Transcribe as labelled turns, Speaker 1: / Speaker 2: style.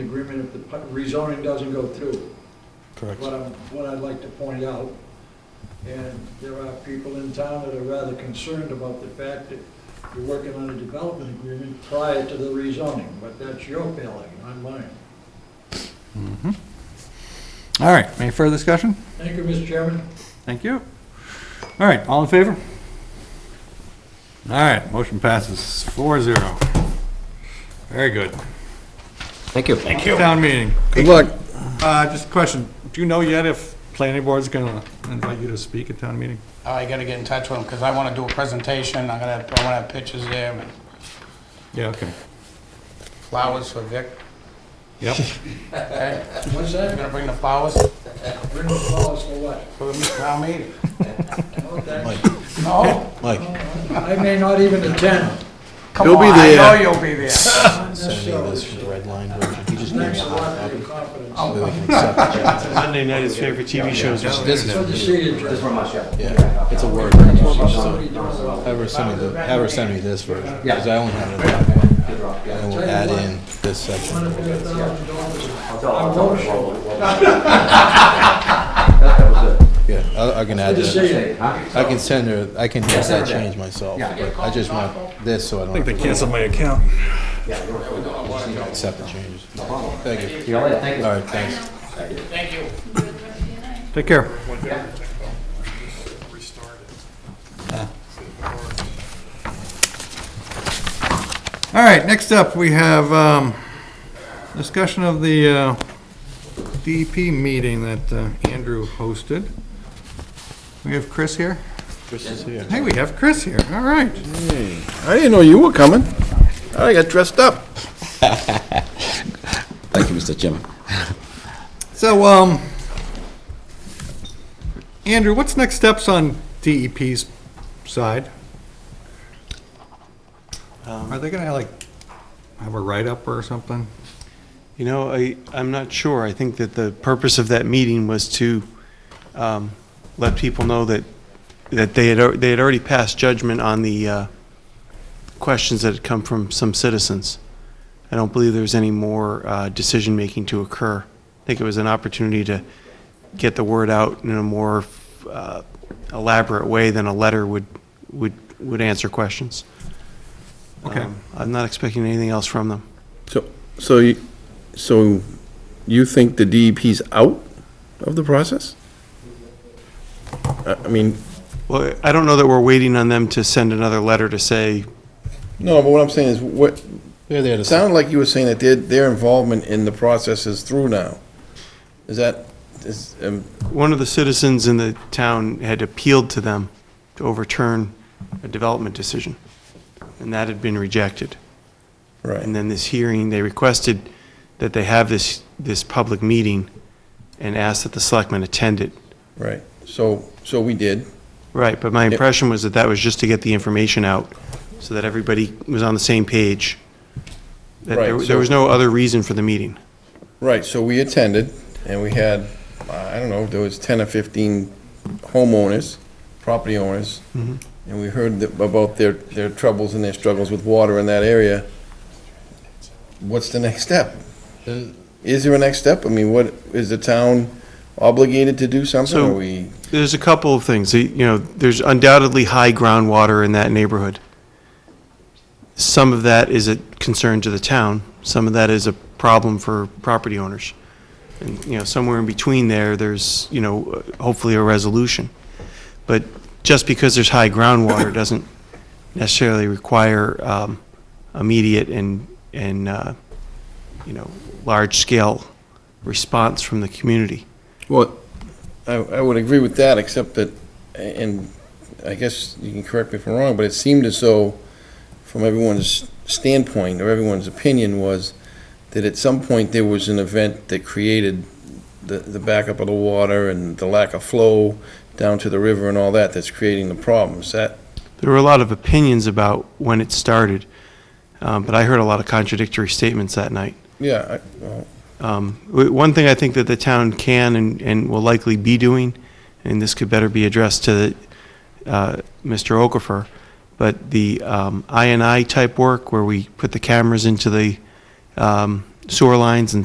Speaker 1: agreement if the pu- rezoning doesn't go through.
Speaker 2: Correct.
Speaker 1: What I'm, what I'd like to point out, and there are people in town that are rather concerned about the fact that you're working on a development agreement prior to the rezoning, but that's your failing, not mine.
Speaker 2: All right, any further discussion?
Speaker 1: Thank you, Mr. Chairman.
Speaker 2: Thank you. All right, all in favor? All right, motion passes four zero. Very good.
Speaker 3: Thank you. Thank you.
Speaker 2: Town meeting.
Speaker 3: Good luck.
Speaker 2: Uh, just a question, do you know yet if planning board's gonna invite you to speak at town meeting?
Speaker 4: I gotta get in touch with him, because I wanna do a presentation, I'm gonna, I wanna have pictures there, and
Speaker 2: Yeah, okay.
Speaker 4: flowers for Vic,
Speaker 2: Yep,
Speaker 4: okay?
Speaker 1: What's
Speaker 4: I'm
Speaker 1: that?
Speaker 4: gonna bring the flowers
Speaker 1: Bring the flowers for what?
Speaker 4: for the town meeting.
Speaker 1: No, thanks.
Speaker 5: Mike,
Speaker 4: No?
Speaker 5: Mike,
Speaker 1: I may not even attend.
Speaker 4: Come
Speaker 5: You'll be
Speaker 4: on,
Speaker 5: there.
Speaker 4: I know you'll be there.
Speaker 1: Not
Speaker 5: send me
Speaker 1: necessarily.
Speaker 5: this for the red line version. He just gave me
Speaker 1: Thanks
Speaker 5: a
Speaker 1: a
Speaker 5: hard
Speaker 1: lot for your
Speaker 5: copy.
Speaker 1: confidence.
Speaker 5: So that we can accept it.
Speaker 6: Monday night is favorite TV shows. is
Speaker 3: This
Speaker 1: Good
Speaker 3: is,
Speaker 1: to see you, Jim.
Speaker 5: Yeah, it's a word.
Speaker 1: Somebody
Speaker 5: version,
Speaker 1: doing
Speaker 5: so
Speaker 1: well.
Speaker 5: Have her send me the, have her send me this version, because I only have it. And then we'll add in this
Speaker 1: One
Speaker 5: section.
Speaker 1: of your thousand dollars.
Speaker 7: I'll
Speaker 1: tell
Speaker 7: tell
Speaker 1: him to
Speaker 7: him
Speaker 1: roll
Speaker 7: That was it.
Speaker 5: Yeah, I, I can add
Speaker 1: Good to see
Speaker 5: that.
Speaker 1: you.
Speaker 5: I can send her, I can have
Speaker 7: send
Speaker 5: that
Speaker 7: her that.
Speaker 5: change myself.
Speaker 7: Yeah.
Speaker 5: but I just want this, so I don't
Speaker 2: I think they
Speaker 5: have to
Speaker 2: canceled my account.
Speaker 5: accept the changes. Thank you.
Speaker 7: See you later. Thank you.
Speaker 5: All right, thanks.
Speaker 4: Thank you.
Speaker 2: Take care. All right, next up, we have um, discussion of the uh, DEP meeting that uh, Andrew hosted. We have Chris here?
Speaker 5: Chris is here.
Speaker 2: Hey, we have Chris here, all right.
Speaker 8: I didn't know you were coming. I got dressed up.
Speaker 3: thank you, Mr. Chairman.
Speaker 2: So, um, Andrew, what's next steps on DEP's side? Are they gonna like have a write-up or something?
Speaker 6: You know, I, I'm not sure. I think that the purpose of that meeting was to um, let people know that, that they had, al- they had already passed judgment on the uh, questions that had come from some citizens. I don't believe there's any more uh, decision-making to occur. I think it was an opportunity to get the word out in a more uh, elaborate way than a letter would, would, would answer questions.
Speaker 2: Okay.
Speaker 6: Um, I'm not expecting anything else from them.
Speaker 8: So, so, you- so you think the DEP's out of the process? I I mean,
Speaker 6: Well, I don't know that we're waiting on them to send another letter to say,
Speaker 8: no, but what I'm saying is, what,
Speaker 5: They're there
Speaker 8: it
Speaker 5: to.
Speaker 8: sounded like you were saying that their, their involvement in the process is through now. Is that, is, um,
Speaker 6: one of the citizens in the town had appealed to them to overturn a development decision, and that had been rejected. And
Speaker 8: right,
Speaker 6: then this hearing, they requested that they have this, this public meeting and asked that the selectmen attend it.
Speaker 8: right. So, so we did.
Speaker 6: Right, but my
Speaker 8: Yep.
Speaker 6: impression was that that was just to get the information out, so that everybody was on the same page. That there,
Speaker 8: Right,
Speaker 6: there was
Speaker 8: so-
Speaker 6: no other reason for the meeting.
Speaker 8: Right, so we attended, and we had, I don't know, there was 10 or 15 homeowners, property owners, and we heard that- about their, their troubles and their struggles with water in that area. What's the next step?
Speaker 5: Then-
Speaker 8: Is there a next step? I mean, what, is the town obligated to do something,
Speaker 6: So-
Speaker 8: or we?
Speaker 6: There's a couple of things. You know, there's undoubtedly high groundwater in that neighborhood. Some of that is a concern to the town. Some of that is a problem for property owners. And, you know, somewhere in between there, there's, you know, hopefully a resolution. But just because there's high groundwater doesn't necessarily require um, immediate and, and, uh, you know, large-scale response from the community.
Speaker 8: Well, I, I would agree with that, except that, and I guess you can correct me if I'm wrong, but it seemed as though, from everyone's standpoint or everyone's opinion, was that at some point there was an event that created the, the backup of the water and the lack of flow down to the river and all that that's creating the problems. That,
Speaker 6: There were a lot of opinions about when it started, um, but I heard a lot of contradictory statements that night.
Speaker 8: yeah, I, well,
Speaker 6: Um, w- One thing I think that the town can and- and will likely be doing, and this could better be addressed to uh, Mr. Okafor, but the um, INI type work where we put the cameras into the um, sewer lines and